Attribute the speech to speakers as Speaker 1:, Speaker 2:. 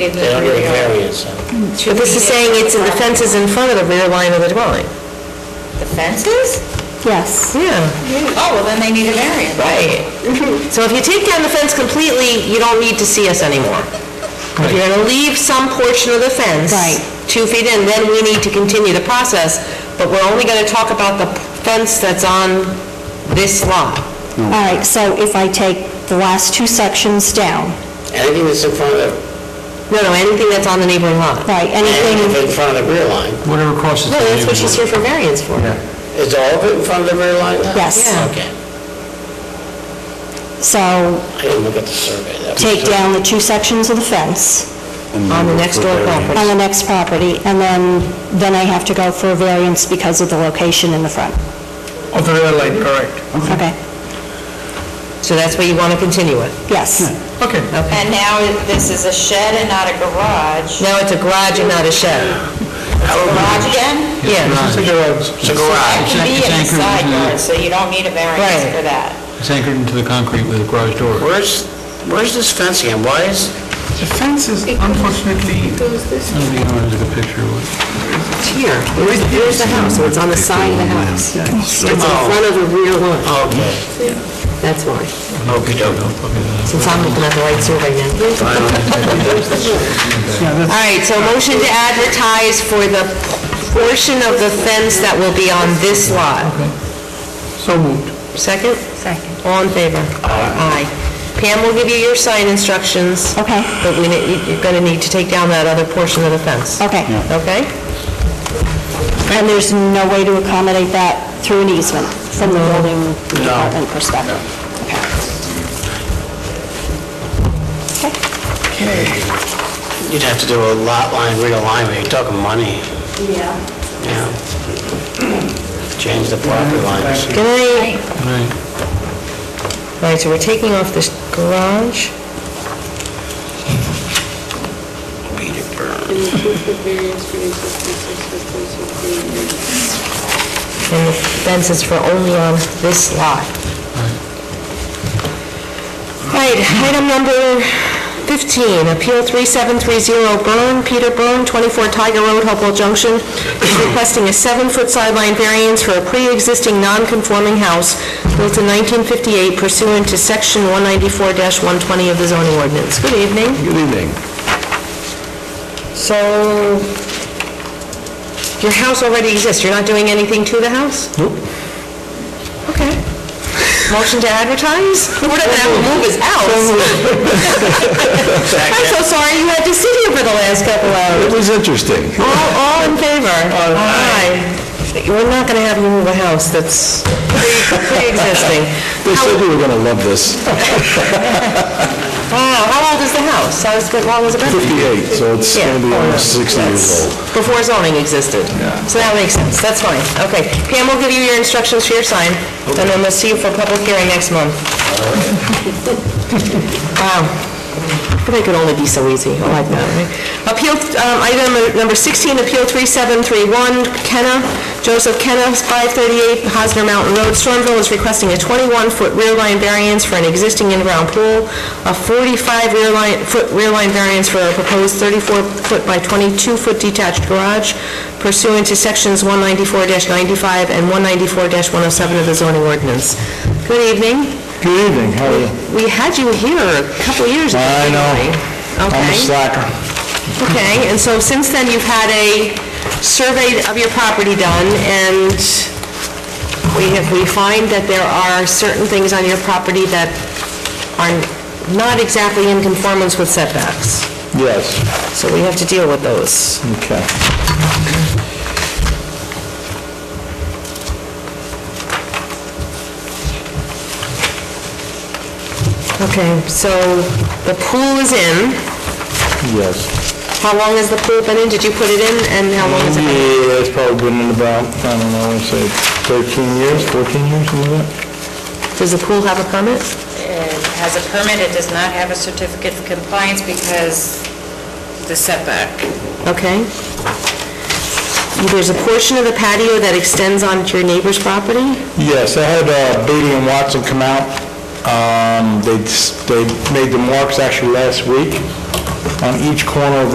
Speaker 1: in the
Speaker 2: They don't
Speaker 1: rear
Speaker 2: need a
Speaker 1: yard.
Speaker 2: variance, huh?
Speaker 1: Should
Speaker 3: This
Speaker 1: we
Speaker 3: is saying
Speaker 1: make
Speaker 3: it's in the fences in front of the rear line of the dwelling.
Speaker 1: The fences?
Speaker 4: Yes.
Speaker 3: Yeah,
Speaker 1: Oh, well, then they need a variance.
Speaker 3: right. So if you take down the fence completely, you don't need to see us anymore. If you're gonna leave some portion of the fence.
Speaker 4: Right.
Speaker 3: Two feet in, then we need to continue the process, but we're only gonna talk about the fence that's on this lot.
Speaker 4: All right, so if I take the last two sections down,
Speaker 2: Anything that's in front of,
Speaker 3: No, no, anything that's on the neighboring lot.
Speaker 4: right,
Speaker 2: anything
Speaker 4: anything,
Speaker 2: in front of the rear line,
Speaker 5: Whatever crosses
Speaker 3: No,
Speaker 5: the
Speaker 3: that's what she's here
Speaker 5: neighborhood.
Speaker 3: for variance for.
Speaker 2: is all of it in front of the rear line now?
Speaker 4: Yes.
Speaker 3: Yeah.
Speaker 2: Okay,
Speaker 4: so
Speaker 2: I didn't look at the survey. That was-
Speaker 4: take down the two sections of the fence
Speaker 3: On the next door property.
Speaker 4: on the next property, and then, then I have to go for a variance because of the location in the front.
Speaker 6: Of the rear line, correct.
Speaker 4: Okay,
Speaker 3: So that's where you wanna continue it.
Speaker 4: yes,
Speaker 6: Okay.
Speaker 1: And now it- this is a shed and not a garage.
Speaker 3: Now it's a garage and not a shed.
Speaker 2: Oh,
Speaker 1: Garage again?
Speaker 3: Yeah.
Speaker 6: It's a garage.
Speaker 2: It's a
Speaker 1: That
Speaker 2: garage.
Speaker 1: can be in
Speaker 5: It's
Speaker 1: the
Speaker 5: anchored
Speaker 1: side
Speaker 5: into the-
Speaker 1: yard, so you don't need a
Speaker 3: Right.
Speaker 1: variance for that.
Speaker 5: It's anchored into the concrete with a garage door.
Speaker 2: Where's, where's this fence again? Why is,
Speaker 6: The fence is unfortunately,
Speaker 5: I don't think anyone took a picture of it.
Speaker 3: Here, where's, where's the house? So it's on the side of the house. It's in front of the rear line,
Speaker 2: okay,
Speaker 3: that's why.
Speaker 2: okey doke.
Speaker 3: Since I'm looking at the right survey now. All right, so motion to advertise for the portion of the fence that will be on this lot.
Speaker 6: so moved.
Speaker 3: Second? Second. All in favor? Aye. Pam will give you your sign instructions,
Speaker 4: okay,
Speaker 3: but we, ne- you- you're gonna need to take down that other portion of the fence.
Speaker 4: okay.
Speaker 3: Okay?
Speaker 4: And there's no way to accommodate that through an easement from the building department perspective? Okay. Okay.
Speaker 2: Okay. You'd have to do a lot line realignment, you're talking money,
Speaker 4: Yeah.
Speaker 2: yeah. Change the property lines.
Speaker 3: Good night.
Speaker 5: Right.
Speaker 3: All right, so we're taking off this garage.
Speaker 2: Peter Burns.
Speaker 3: and the fence is for only on this lot. Right, item number 15, Appeal 3730 Byrne, Peter Byrne, 24 Tiger Road, Hopewell Junction, is requesting a seven-foot sideline variance for a pre-existing non-conforming house built in 1958 pursuant to Section 194-120 of the zoning ordinance. Good evening. Good evening. So, your house already exists, you're not doing anything to the house? Nope. Okay. Motion to advertise? We're not gonna have to move his house. I'm so sorry you had to sit here for the last couple hours.
Speaker 7: It was interesting.
Speaker 3: All, all in favor? Aye. We're not gonna have you move a house that's pre- pre-existing.
Speaker 7: They said you were going to love this.
Speaker 3: Wow, how old is the house? How is it- how long has it been?
Speaker 7: 58, so it's
Speaker 3: Yeah.
Speaker 7: going to be almost 60 years old.
Speaker 3: Before zoning existed. So that makes sense, that's fine, okay. Pam will give you your instructions for your sign, and then we'll see you for public hearing next month. Wow, but it could only be so easy, Oh, I like that, right? Appeal, um, item number 16, Appeal 3731, Kenna, Joseph Kenna, 538 Hosner Mountain Road, Stormville is requesting a 21-foot rear line variance for an existing in-ground pool, a 45 rear line, foot rear line variance for a proposed 34-foot by 22-foot detached garage pursuant to Sections 194-95 and 194-107 of the zoning ordinance. Good evening.
Speaker 7: Good evening, how are you?
Speaker 3: We had you here a couple years ago.
Speaker 7: I know.
Speaker 3: didn't we?
Speaker 7: I'm a
Speaker 3: Okay,
Speaker 7: slacker.
Speaker 3: okay, and so since then, you've had a survey of your property done, and we have, we find that there are certain things on your property that are not exactly in conformance with setbacks,
Speaker 7: Yes,
Speaker 3: so we have to deal with those.
Speaker 7: okay.
Speaker 3: Okay, so the pool is in.
Speaker 7: Yes.
Speaker 3: How long has the pool been in? Did you put it in, and how long has it been?
Speaker 7: Yeah, it's probably been in about, I don't know, let's say 13 years, 14 years, something like that?
Speaker 3: Does the pool have a permit?
Speaker 1: It has a permit, it does not have a certificate of compliance because the setback.
Speaker 3: Okay. There's a portion of the patio that extends onto your neighbor's property?
Speaker 7: Yes, I had uh, Beatty and Watson come out. Um, They, s- they made the marks actually last week. on each corner of the